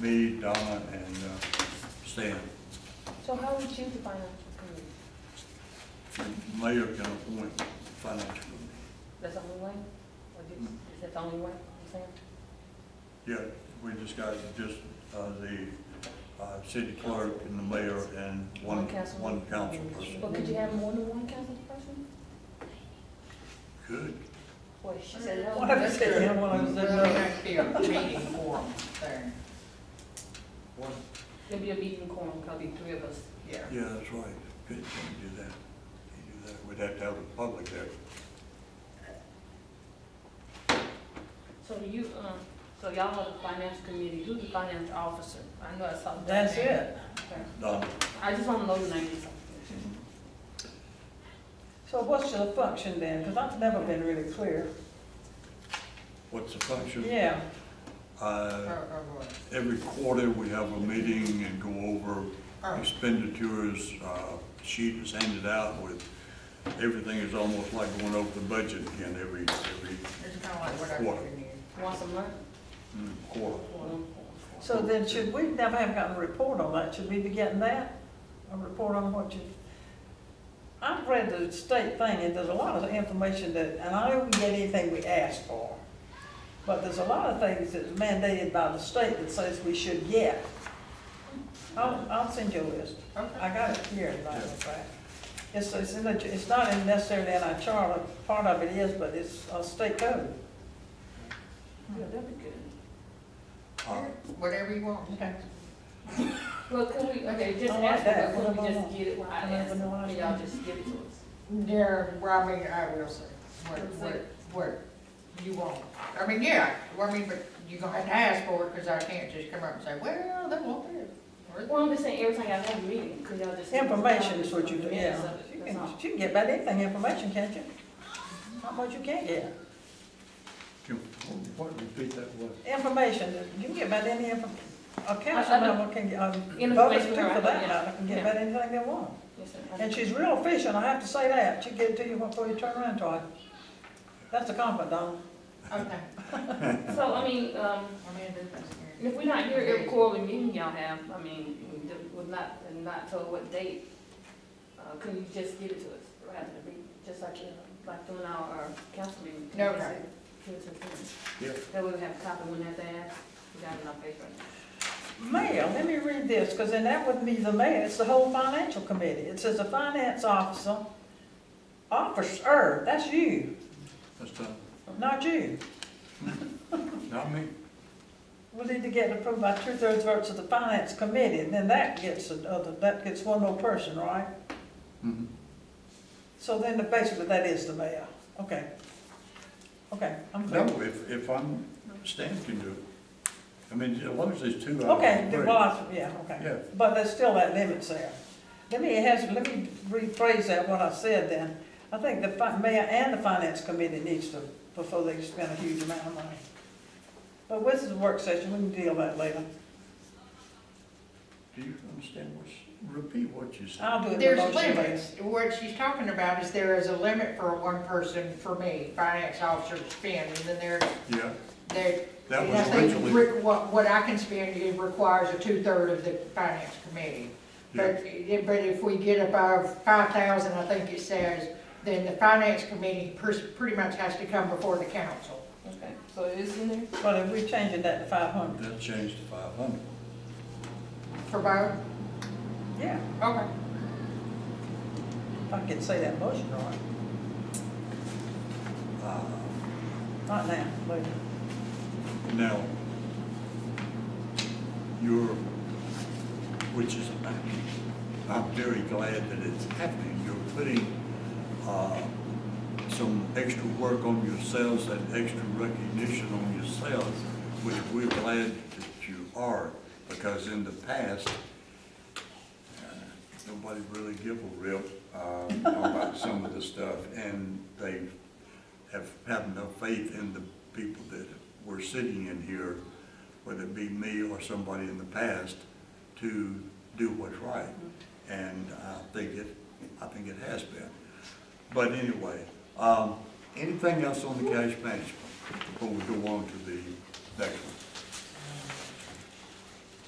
me, Donna, and uh, Stan. So how would you define a committee? The Mayor can appoint financial committee. That's the only way? Or do- Is that the only way, you're saying? Yeah, we just got just uh, the uh, city clerk and the mayor and one, One council. one council person. But could you have more than one council person? Good. Well, she said What if no. it said no, what if it said Really no? not clear, meeting form thing, There'd be a meeting quorum, probably three of us. yeah. Yeah, that's right. Good, can't do that. Can't do that. We'd have to have the public there. So do you, um, so y'all are the finance committee, who's the finance officer? I know I saw that. That's it. Okay. Donna, I just wanna know the name. So what's your function then? Because I've never been really clear. what's the function? Yeah, Or, Uh, or what? Every quarter, we have a meeting and go over Oh, expenditures, uh, sheet is handed out with, everything is almost like going over the budget again every, every it's kinda like what I Water. read in here. Once a month? mm, quarter. so then should, we never have gotten a report on that. Should we be getting that? A report on what you, I've read the state thing and there's a lot of information that, and I don't get anything we ask for. But there's a lot of things that's mandated by the state that says we should get. I'll, I'll send you a list. Okay, I got it here, as a matter of fact. It's, it's in the, it's not in necessarily in our charter, part of it is, but it's uh, a state code. Yeah, that'd be good. Uh, whatever you want. Okay. Well, can we, okay, just I like ask, it, that. but can What we about just get it while I that? ask, What can about y'all that? just give it to us? Yeah, well, I mean, I will say, what, Let's what, see. what you want. I mean, yeah, well, I mean, but you gonna have to ask for it, cause I can't just come up and say, well, they want this. or- Well, I'm just saying, every time y'all have a meeting, could y'all just. Information is what you do, yeah. Minutes of You it, can, that's all. you can get about anything information, can't you? Not much you can't get. Can, what, repeat that word? Information, you can get about any info, a council I- I don't- member can, get, um, Information, voters too, for right, that yeah, matter, can get yeah. about anything they want. Yes, sir. And she's real efficient, I have to say that. She get it to you before you turn around to her. That's a compliment, Donna. Okay, So, I mean, um, I mean, that's And If we're not here every quarterly meeting y'all have, I mean, we- we're not, and not told what date, uh, can you just give it to us rather than be, just like, you know, like doing our, our council meeting? No, Just okay. Give it to us. Yeah. That way we have a copy, we don't have to ask, we got it in our paper. Mayor, let me read this, because then that wouldn't be the mayor, it's the whole financial committee. It says the finance officer, officer, that's you, That's done. not you. Not me. We need to get it approved by two-thirds votes of the finance committee, and then that gets another, that gets one more person, right? Mhm. So then the- basically, that is the mayor. Okay. Okay, I'm clear. No, if, if I'm, Stan can do it. I mean, as long as there's two. out of Okay, the three. boss, yeah, Yeah. okay. But there's still that limit there. Let me, has, let me rephrase that, what I said then. I think the fi- mayor and the finance committee needs to, before they spend a huge amount of money. But this is a work session, we can deal with that later. Do you understand what's, repeat what you said? I'll do it in There's the motion later. limits. What she's talking about is there is a limit for one person, for me, finance officer to spend, and then there, Yeah, there. that and was I think originally. re- What, what I can spend, it requires a two-third of the finance committee. But, but if we get above five thousand, I think it says, then the finance committee pers- pretty much has to come before the council. Okay, so it is in there? But if we changing that to five hundred, That changed to five hundred. For both? yeah, Okay. if I could say that motion right. Not now, later. Now, your, which is, I'm very glad that it's happening, you're putting, uh, some extra work on yourselves and extra recognition on yourselves, which we're glad that you are, because in the past, uh, nobody really give a rip, uh, about some of the stuff, and they have, have no faith in the people that were sitting in here, whether it be me or somebody in the past, to do what's right. And I think it, I think it has been. But anyway, um, anything else on the cash management before we go on to the next one?